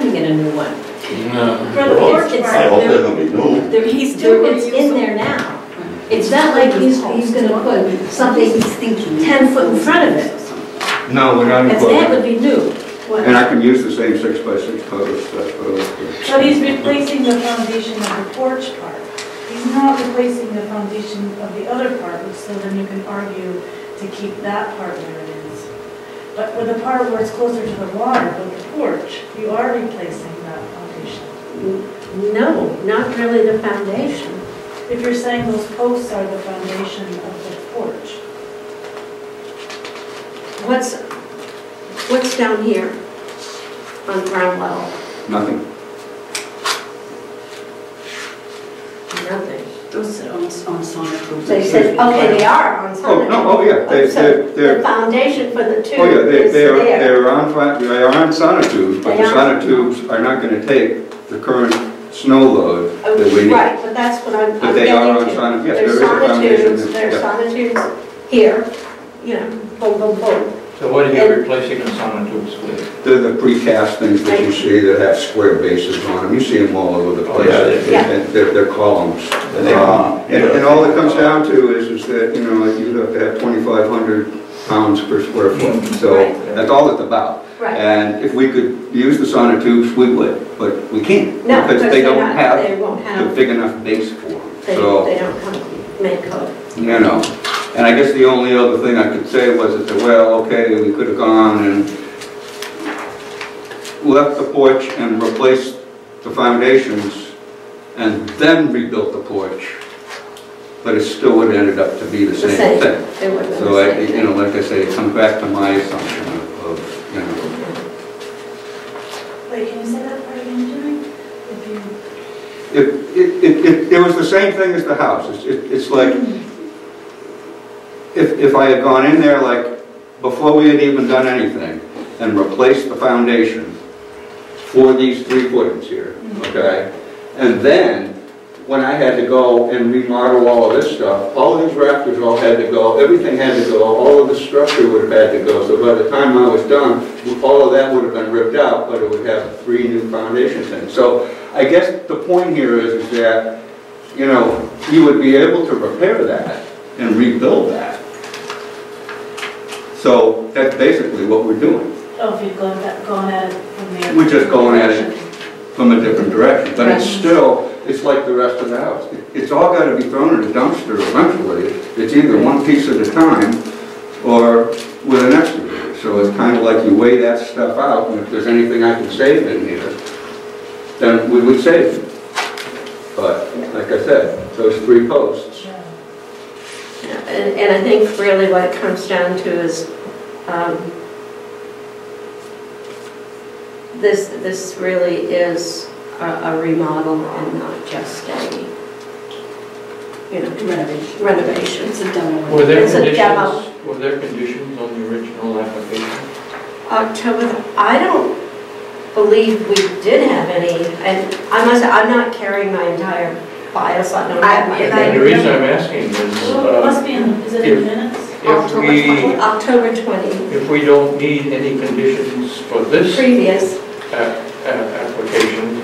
in a new one. No. For the porch It's- part, it's- I hope they're gonna be new. There, he's Two doing, were it's in usable. there now. It's not like he's, he's gonna put something He's thinking. 10 foot in front of it. No, we're not And that would including. be new. And I can use the same six by six post, that's what I was doing. But he's replacing the foundation of the porch part. He's not replacing the foundation of the other part, which so then you can argue to keep that part where it is. But with the part where it's closer to the water, with the porch, you are replacing that foundation. No, not really the foundation. If you're saying those posts are the foundation of the porch, What's, what's down here on ground level? Nothing. Nothing. Those are on, on Sonic Road. They said, okay, they are on Oh, Summit. no, oh, yeah, they, So they're, the they're, foundation for the two oh, yeah, they, is they are, there. they're on, fi- they are on sonotubes, but the They are. sonotubes are not gonna take the current snow load that we Okay, need. Oh, Right, but that's what I'm, But I'm they getting are on to. sonotubes, yes, there There's is a foundation. sonotubes, there, there's yeah. sonotubes here, you know, boom, boom, boom. So what are you replacing the sonotubes with? They're the precast things that you see that have square bases on them, you see them all over the Oh, place. yeah, they- Yeah. And They're, they're columns. And they are. Um, And, and all it comes down to is, is that, you know, you'd have to have twenty-five hundred pounds per square foot. So Right. that's all it's about. Right. And if we could use the sonotubes, we would, but we can't. No, Because they they're don't not- have They won't the have, big enough base for them. they, So- they don't come, make code. you know. And I guess the only other thing I could say was that, well, okay, we could have gone and left the porch and replaced the foundations and then rebuilt the porch, but it still would have ended up to be the The same same. thing. They wouldn't have So, I- the you same know, like I say, it comes back to my assumption of- of, you know, thing. wait, can you say that part again, Jimmy? If you It, it, it- it, it was the same thing as the house, it's, it- it's like, if, if I had gone in there like, before we had even done anything, and replaced the foundation for these three footings here, okay? And then, when I had to go and remodel all of this stuff, all these rafters all had to go, everything had to go, all of the structure would have had to go, so by the time I was done, all of that would have been ripped out, but it would have three new foundation things. So I guess the point here is, is that, you know, you would be able to repair that and rebuild that. So that's basically what we're doing, Oh, if you'd gone, at- gone at it from the. We're just going at it. from a different direction. But it's still, it's like the rest of the house. It's all gotta be thrown in a dumpster eventually. It's either one piece at a time or with an excavator. So it's kinda like you weigh that stuff out, and if there's anything I can save in here, then we would save it. But, like I said, those three posts, Yeah. And, and I think really what it comes down to is, um, this, this really is a a remodel and not just a, you know, Renovation. renovation. It's a demo. Were there It's a demo. conditions, were there conditions on the original application? October, the- I don't believe we did have any, and I must, I'm not carrying my entire file, so I don't have my. I- And The reason I'm asking is, Well, it uh, must be in, is it in minutes? if we, October 20, if we don't need any conditions for this previous, a- a- application,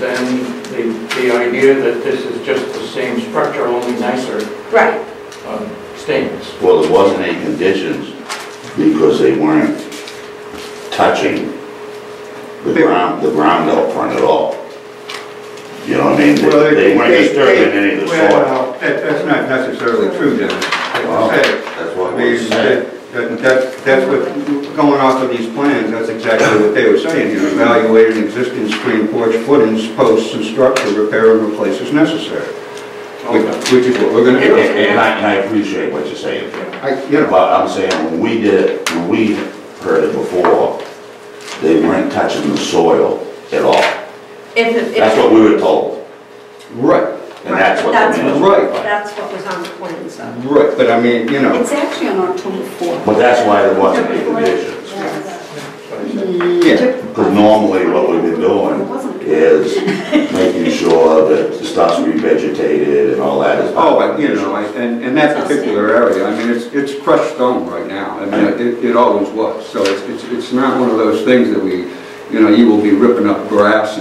then the, the idea that this is just the same structure, only nicer, right, um, stands. Well, there wasn't any conditions because they weren't touching the They- ground, the ground out front at all. You know what I mean? They they weren't disturbing any of the soil. Well, that- that's not necessarily true, Dennis. Well, Like you said, That's I what we're mean, saying. that- that- that- that's what, going off of these plans, that's exactly what they were saying, you know, evaluate an existing screen porch footings, posts and structure, repair and replace as necessary, which which is what we're And gonna do. and- and I, and I appreciate what you're saying. I, you know, But I'm saying, when we did, it, when we heard it before, they weren't touching the soil at all. if, if. That's what we were told, right, and that's what That's the minutes what- were. That's what was on the plan, so. right, but I mean, you know, It's actually on October 4th. But that's why there wasn't any conditions. yeah, Because normally what we've been doing is making sure that the stuff's revegetated and all that is. oh, I- you know, I- and, and that particular area, I mean, it's, it's crushed stone right now, I mean, it, it always was, so it's, it's it's not one of those things that we, you know, you will be ripping up grass